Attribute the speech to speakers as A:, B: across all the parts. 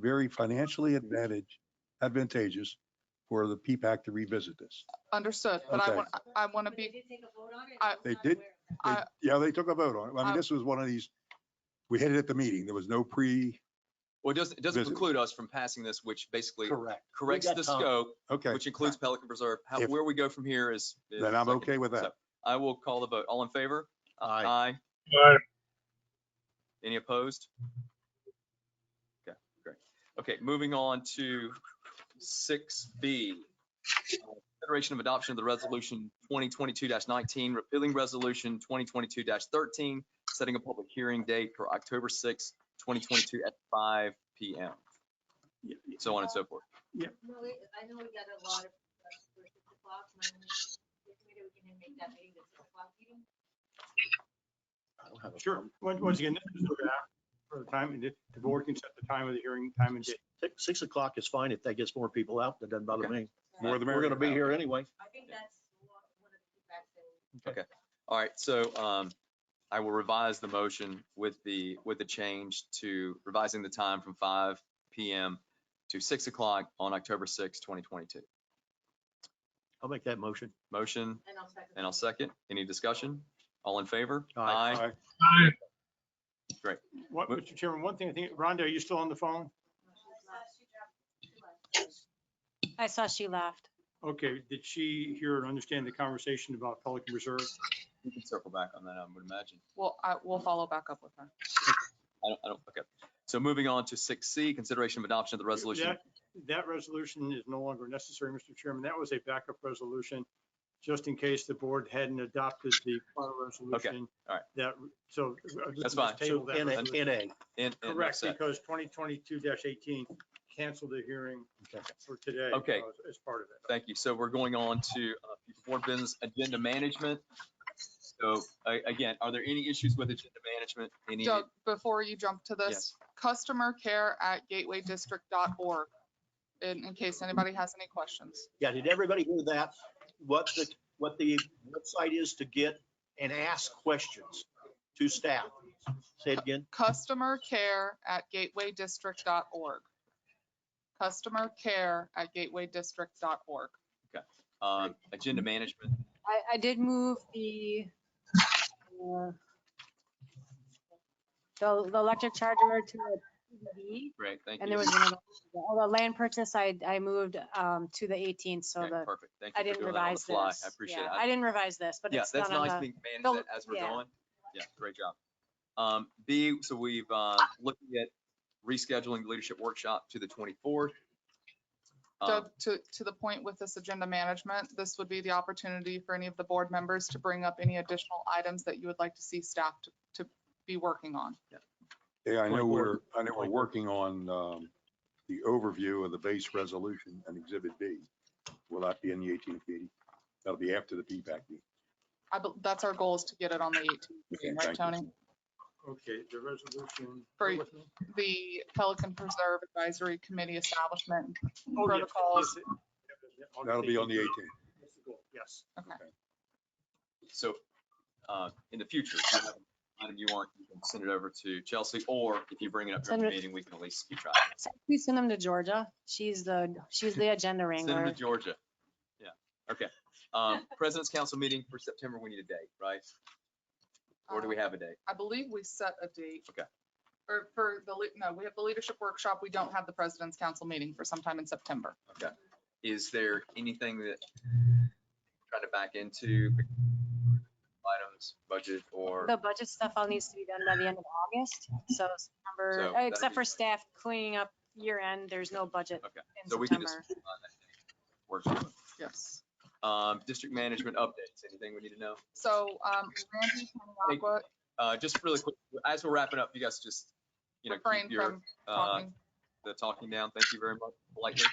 A: very financially advantage, advantageous for the PPAC to revisit this.
B: Understood, but I
A: Okay.
B: want, I want to
C: So
B: be,
C: They did take a vote on it?
B: I-
C: I'm
A: They
C: not
A: did?
C: aware of that.
A: They-
B: I-
A: Yeah, they took a vote on it. I
B: I-
A: mean, this was one of these, we hit it at the meeting. There was no pre.
D: Well, it doesn't, it doesn't
A: Visit.
D: preclude us from passing this, which basically
A: Correct.
D: corrects
E: got
D: the
E: time.
D: scope,
A: Okay,
D: which includes Pelican Preserve. How,
A: If-
D: where we go from here is. is
A: then I'm
D: second.
A: okay with that.
D: So, I will call the vote. All in favor?
E: Aye.
D: Aye.
F: Aye.
D: Any opposed? Okay, great. Okay, moving on to six B. Consideration of adoption of the resolution twenty twenty-two nineteen, repealing resolution twenty twenty-two thirteen, setting a public hearing date for October sixth, twenty twenty-two at five P M. So on and so forth.
C: No, we- I know we got a lot of, requests for six o'clock, and I'm like, maybe we can make that meeting at six o'clock. You don't-
G: Sure. Once, once again, this is for that, for the time, and the the board can set the time of the hearing, time and date.
E: Six- Six o'clock is fine if that gets more people out. That doesn't bother
D: Okay.
E: me.
A: More the
E: We're
A: merrier.
E: gonna be here anyway.
C: I think that's one one of the feedbacks that. we-
D: Okay. All right, so um, I will revise the motion with the, with the change to revising the time from five PM to six o'clock on October sixth, twenty twenty-two.
E: I'll make that motion.
D: Motion
C: And I'll second.
D: and I'll second. Any discussion? All in favor?
E: Aye.
A: Aye.
F: Aye.
G: What,
D: But-
G: Mr. Chairman, one thing, I think, Rhonda, are you still on the phone?
C: I saw she laughed.
G: Okay, did she hear and understand the conversation about Pelican Reserve?
D: We can circle back on that, I would imagine.
B: well, I will follow back up with her.
D: I don't, I don't, okay. So moving on to six C, consideration of adoption of the resolution.
G: That- That resolution is no longer necessary, Mr. Chairman. That was a backup resolution, just in case the board hadn't adopted the prior resolution.
D: all right.
G: That, so. uh,
D: That's
G: let's
D: fine.
G: just table
E: So
G: that
E: N A, N
G: resolution.
E: A.
D: in- in
G: Correct,
D: set.
G: because twenty twenty-two eighteen canceled the hearing
E: Okay.
G: for today.
D: Okay.
G: uh, As part of it.
D: Thank you. So we're going on to uh, board business agenda management. So a- again, are there any issues with agenda management? Any?
B: Doug, before you jump to this, customer care at gatewaydistrict.org, in, in case anybody has any questions.
E: Yeah, did everybody hear that? What the, what the website is to get and ask questions to staff. Say it again.
B: Customer care at gatewaydistrict.org. Customer care at gatewaydistrict.org.
D: um, agenda management.
H: I, I did move the, uh, the, the electric charger to a PVB,
D: Great, thank you.
H: and there was another, oh, the land purchase, I, I moved, um, to the 18th, so
D: Okay,
H: the,
D: Perfect, thank
H: I
D: you for
H: didn't
D: doing that on the
H: revise
D: fly.
H: this.
D: I appreciate
H: Yeah,
D: it.
H: I didn't revise this, but
D: Yeah,
H: it's
D: that's
H: not on
D: nice
H: the,
D: being
H: don't-
D: managed that as we're
H: yeah.
D: going. Yeah, great job. Um, B, so we've, uh, looking at rescheduling the leadership workshop to the Um, twenty-fourth. Uh.
B: Doug, to, to the point with this agenda management, this would be the opportunity for any of the board members to bring up any additional items that you would like to see staff to, to be working on.
A: Yeah, I know
E: 24.
A: we're, I know we're
E: 24.
A: working on um, the overview of the base resolution and Exhibit B. Will that be in the 18th meeting? That'll be after the PPAC meeting.
B: I, bel- that's our goal is to get it on the 18th,
A: Okay,
B: right,
A: thank you.
B: Tony?
G: Okay, the resolution.
B: For-
G: Go with me.
B: The Pelican Preserve Advisory Committee Establishment
G: Oh, yes,
B: Protocols.
G: yes, it-
A: That'll be on the 18th.
G: That's the goal, Yes.
D: So, uh, in the future, if you have an item you want, you can send it over to Chelsea, or if you bring it up during the
H: Send it-
D: meeting, we can at least keep track.
H: we send them to Georgia. She's the, she's the agenda
D: Send them to
H: wrangler.
D: Georgia. Yeah, okay. Um, President's Council meeting for September, we need a date, right? Or do we have a date?
B: I believe we set a date.
D: Okay.
B: Or for the, lea- no, we have the leadership workshop. We don't have the president's council meeting for sometime in September.
D: Is there anything that trying to back into items, budget or?
H: The budget stuff all needs to be done by the end of August, so
D: So
H: September, uh,
D: that'd
H: except
D: be-
H: for staff cleaning up year end, there's no budget
D: Okay,
H: in
D: So we can just
H: September.
D: move on that date. Works for us.
B: Yes.
D: Um, district management updates, anything we need to know?
B: So, um, Randy
D: Thank you.
B: Paniagua
D: Uh, just really quick, as we're wrapping up, you guys just, you know,
B: refrained
D: keep your,
B: from
D: uh,
B: talking.
D: the talking down. Thank you very much. Politely.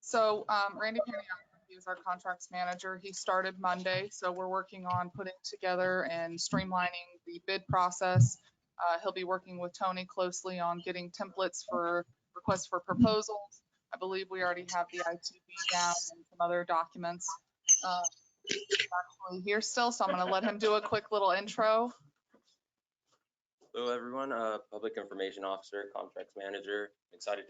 B: So um, Randy Paniagua, he is our contracts manager. He started Monday, so we're working on putting together and streamlining the bid process. Uh, He'll be working with Tony closely on getting templates for requests for proposals. I believe we already have the ITB down and some other documents. Uh, Actually, here still, so I'm going to let him do a quick little intro.
I: Hello, everyone. Uh, Public Information Officer, Contracts Manager. Excited to